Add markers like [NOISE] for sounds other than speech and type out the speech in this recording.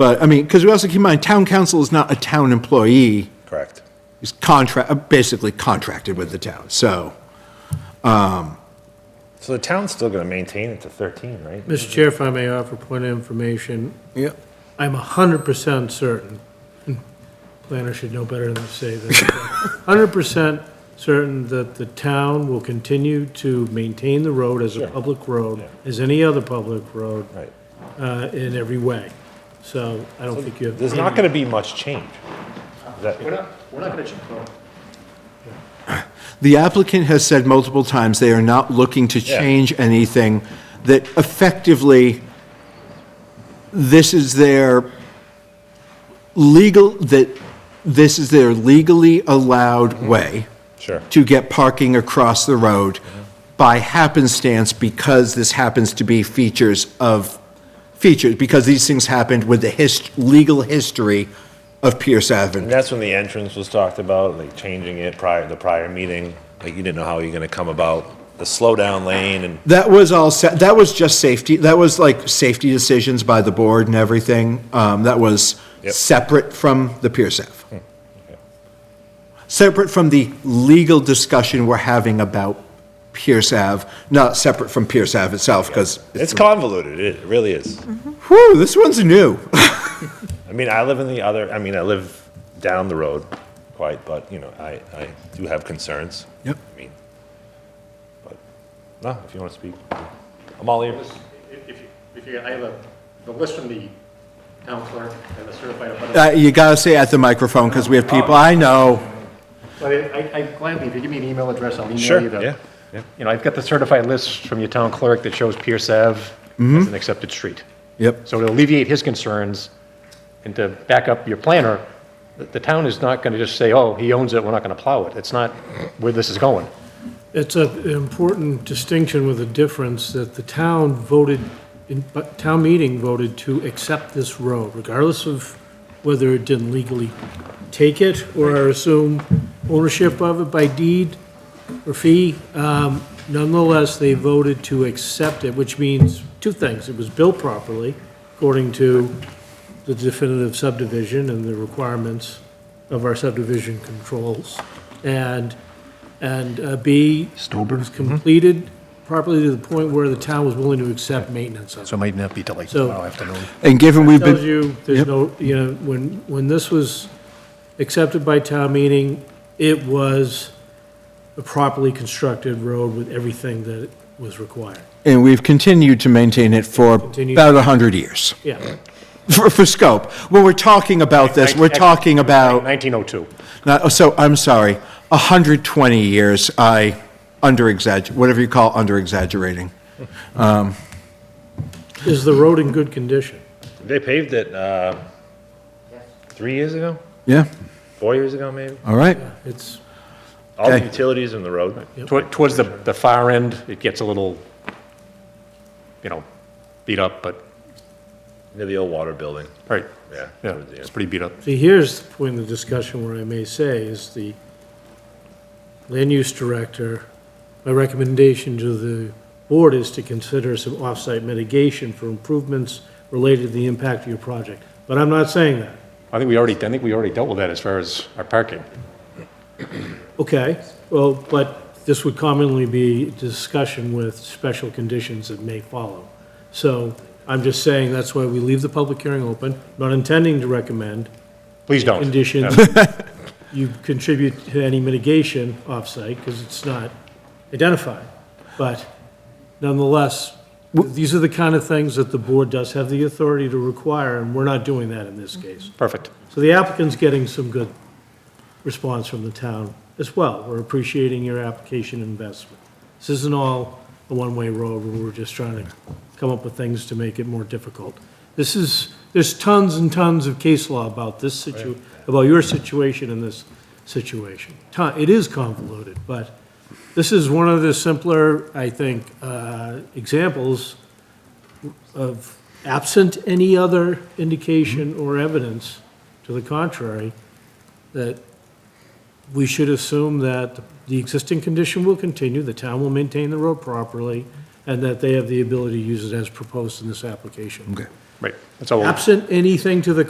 But, I mean, because we also keep in mind, town council is not a town employee, Correct. he's contract, basically contracted with the town, so. So the town's still going to maintain it to 13, right? Mr. Chair, if I may offer point of information, Yep. I'm 100% certain, planner should know better than to say this, 100% certain that the town will continue to maintain the road as a public road, as any other public road, Right. uh, in every way. So I don't think you have. There's not going to be much change. Is that- We're not, we're not gonna change, well, The applicant has said multiple times they are not looking to Yeah. change anything, that effectively, this is their legal, that this is their legally allowed way Sure. to get parking across the road by happenstance because this happens to be features of, features, because these things happened with the hist, legal history of Pierce Avenue. And that's when the entrance was talked about, like changing it prior, the prior meeting. Like you didn't know how you're going to come about the slowdown lane and That was all set, that was just safety, that was like safety decisions by the board and everything. Um, that was Yep. separate from the Pierce Ave. Separate from the legal discussion we're having about Pierce Ave, not separate from Pierce Ave itself, because, it's convoluted. It really is. whew, this one's new. I mean, I live in the other, I mean, I live down the road quite, but you know, I, I do have concerns. Yep. I mean, but, no, if you want to speak, I'm all ears. if if you, if you, I have a, the list from the town clerk and the certified abutter. Uh, you gotta say at the microphone, because we have people, I know. But I, I gladly, if you give me an email address, I'll Sure, email you the. yeah, yeah. You know, I've got the certified list from your town clerk that shows Pierce Ave as an accepted street. Yep. So to alleviate his concerns and to back up your planner, the, the town is not gonna just say, oh, he owns it, we're not gonna plow it. It's not where this is going. It's a- an important distinction with a difference that the town voted, in- but town meeting voted to accept this road, regardless of whether it didn't legally take it or assume ownership of it by deed or fee. Um, Nonetheless, they voted to accept it, which means two things. It was built properly, according to the definitive subdivision and the requirements of our subdivision controls. And and uh, B. Was completed properly to the point where the town was willing to accept maintenance of it. So it might not be till like So- tomorrow afternoon. And given we've Tells been, you, there's no, you know, when, when this was accepted by town meeting, it was a properly constructed road with everything that was required. and we've continued to maintain it for Continue. about 100 years, [LAUGHS] Yeah, for, for scope. When we're talking about this, we're talking about. Nineteen oh two. Now, so, I'm sorry, 120 years, I under-exagger, whatever you call under-exaggerating. is the road in good condition? They paved it, uh, three years ago, Yeah, four years ago, maybe? all right. It's, All the Okay. utilities in the road. Tow- Towards the, the far end, it gets a little, you know, beat up, but, Near the old water building, right, yeah. yeah, towards the it's end. pretty beat up. see, here's the point of the discussion where I may say is the land use director, my recommendation to the board is to consider some off-site mitigation for improvements related to the impact of your project. But I'm not saying that. I think we already, I think we already dealt with that as far as our parking. Okay, well, but this would commonly be discussion with special conditions that may follow. So I'm just saying that's why we leave the public hearing open, not intending to recommend Please don't. conditions. You contribute to any mitigation off-site because it's not identified. But nonetheless, these are the kind of things that the board does have the authority to require, and we're not doing that in this case. Perfect. So the applicant's getting some good response from the town as well. We're appreciating your application and investment. This isn't all a one-way road where we're just trying to come up with things to make it more difficult. This is, there's tons and tons of case law about this situ, about your situation and this situation. Ton- It is convoluted, but this is one of the simpler, I think, uh, examples of, absent any other indication or evidence to the contrary, that we should assume that the existing condition will continue, the town will maintain the road properly, and that they have the ability to use it as proposed in this application. Okay. Right, that's all. we're- Oh. Absent anything to the